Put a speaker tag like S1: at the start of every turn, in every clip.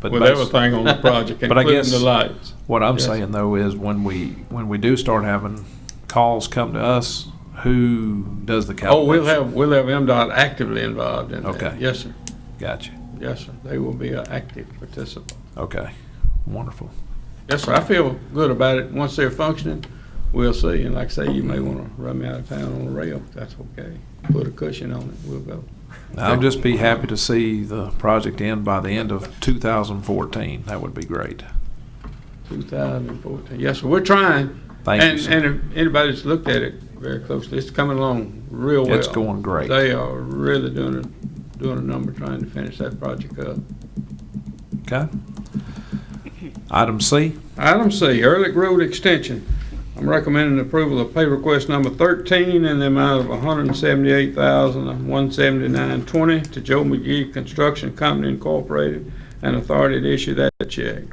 S1: But
S2: with
S1: bas-
S2: everything on the project,
S1: But I
S2: including the
S1: guess-
S2: lights.
S1: What I'm
S2: Yes.
S1: saying though is when we, when we do start having calls come to us, who does the calculation?
S2: Oh, we'll have, we'll have MDOT actively involved in that.
S1: Okay.
S2: Yes, sir.
S1: Gotcha.
S2: Yes, sir. They will be an active participant.
S1: Okay. Wonderful.
S2: Yes, sir. I feel good about it. Once they're functioning, we'll see. And like I say, you may want to run me out of town on a rail. That's okay. Put a cushion on it. We'll go.
S1: I'll just be happy to see the project end by the end of 2014. That would be great.
S2: 2014. Yes, sir. We're trying.
S1: Thank you,
S2: and,
S1: sir.
S2: and if anybody's looked at it very closely, it's coming along real well.
S1: It's going great.
S2: They are really doing a, doing a number trying to finish that project up.
S1: Okay. Item C,
S2: Item C, Ehrlich Road Extension. I'm recommending approval of pay request number 13 in the amount of $178,179.20 to Joe McGee Construction Company Incorporated and authority to issue that check.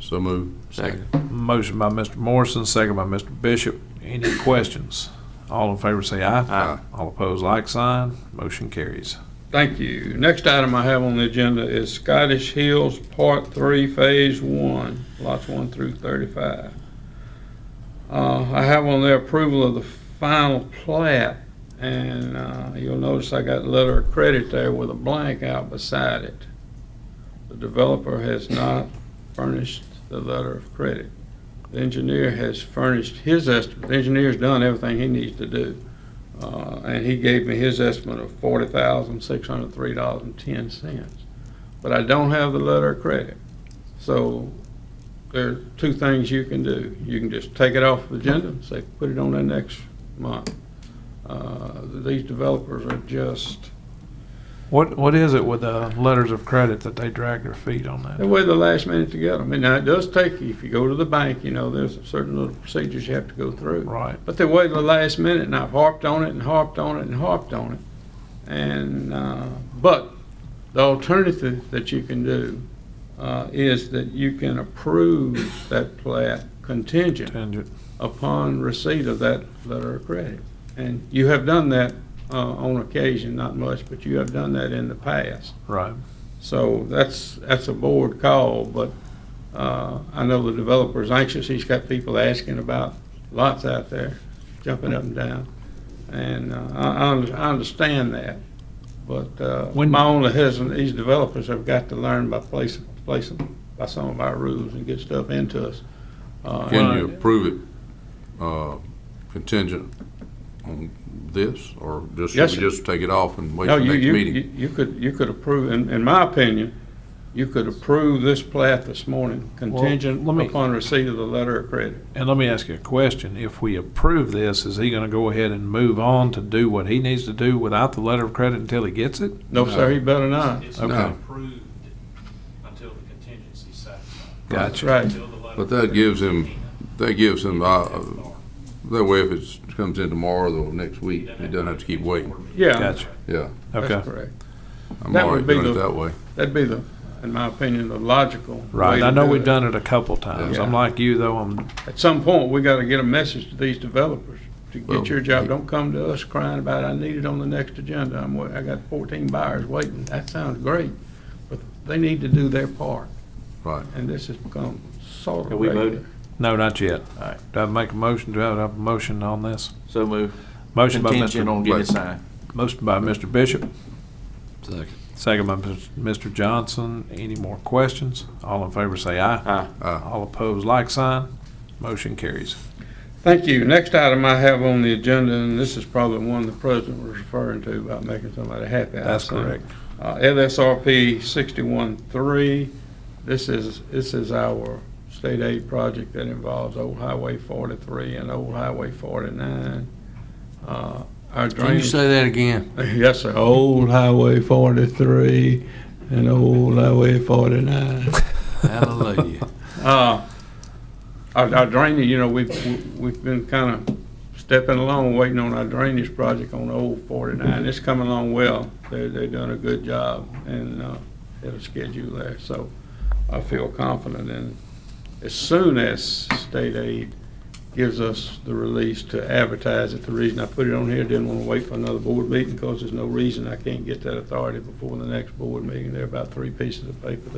S3: So move. Second.
S1: motion by Mr. Morrison, second by Mr. Bishop. Any questions? All in favor say aye.
S3: Aye.
S1: All opposed, like sign. Motion carries.
S2: Thank you. Next item I have on the agenda is Scottish Hills Part Three, Phase One, lots one through thirty-five. Uh, I have on there approval of the final plat, and, uh, you'll notice I got letter of credit there with a blank out beside it. The developer has not furnished the letter of credit. The engineer has furnished his estimate, the engineer's done everything he needs to do. Uh, and he gave me his estimate of forty thousand, six hundred three dollars and ten cents. But I don't have the letter of credit. So there are two things you can do. You can just take it off the agenda and say, put it on the next month. Uh, these developers are just,
S1: What, what is it with the letters of credit that they drag their feet on
S2: they
S1: that?
S2: wait the last minute to get them. And now it does take, you if you go to the bank, you know, there's certain little procedures you have to go through.
S1: Right.
S2: But they waited the last minute, and I've harped on it and harped on it and harped on it. And, uh, but the alternative that you can do uh, is that you can approve that plat contingent
S1: Tangent.
S2: upon receipt of that letter of credit. And you have done that uh, on occasion, not much, but you have done that in the past.
S1: Right.
S2: So that's, that's a board call, but uh, I know the developer's anxious. He's got people asking about lots out there, jumping up and down. And uh, I, I under- I understand that, but uh,
S1: When-
S2: my only hesitant, these developers have got to learn by placing, placing, by some of our rules and get stuff into us. Uh,
S3: Can you approve it uh, contingent on this, or just, should
S2: Yes,
S3: we
S2: sir.
S3: just take it off and wait
S2: No,
S3: for
S2: you,
S3: next
S2: you,
S3: meeting?
S2: you you could, you could approve, in, in my opinion, you could approve this plat this morning contingent
S1: let me-
S2: upon receipt of the letter of credit.
S1: And let me ask you a question. If we approve this, is he gonna go ahead and move on to do what he needs to do without the letter of credit until he gets it?
S2: No,
S3: No.
S2: sir, he better not.
S4: It's
S1: Okay.
S4: not approved until the contingency's satisfied.
S1: Gotcha.
S2: Right.
S4: Until the letter-
S3: But that gives him- That gives him, uh, that way if it comes in tomorrow or next week, he doesn't have to keep waiting.
S2: Yeah.
S1: Gotcha.
S3: Yeah,
S1: Okay.
S2: That's correct.
S3: I'm
S2: That
S3: all
S2: would
S3: right
S2: be
S3: doing it
S2: the-
S3: that way.
S2: That'd be the, in my opinion, the logical. way
S1: Right.
S2: to
S1: I know
S2: do
S1: we've
S2: it.
S1: done it a couple times. I'm
S2: Yeah.
S1: like you though, I'm,
S2: At some point, we gotta get a message to these developers to
S3: Well,
S2: get your job.
S3: he-
S2: Don't come to us crying about, I need it on the next agenda. I'm, wa- I got fourteen buyers waiting. That sounds great, but they need to do their part.
S3: Right.
S2: And this has become sort of.
S5: Have we
S2: regular.
S5: voted?
S1: no, not yet.
S5: All right.
S1: Do I make a motion? Do I have a motion on this?
S5: So move.
S1: Motion by
S5: Contingent on
S1: Mr.
S5: getting it signed.
S1: Motion by Mr. Bishop,
S3: Second.
S1: second by Mr. Johnson. Any more questions? All in favor say aye.
S5: Aye.
S1: All opposed, like sign. Motion carries.
S2: Thank you. Next item I have on the agenda, and this is probably one the president was referring to about making somebody happy. I
S1: That's
S2: assume.
S1: correct.
S2: Uh, LSRP 61-3, this is, this is our state aid project that involves Old Highway 43 and Old Highway 49. Uh, Our drainage.
S3: that again?
S2: Yes, sir, Old Highway 43 and Old Highway 49.
S3: Hallelujah.
S2: Uh, Our our drainage, you know, we've, we've been kind of stepping along, waiting on our drainage project on Old 49. It's coming along well. They're, they're doing a good job and uh, it'll schedule there. So I feel confident in, as soon as state aid gives us the release to advertise it, the reason I put it on here, didn't want to wait for another board meeting because there's no reason I can't get that authority before the next board meeting. There are about three pieces of paper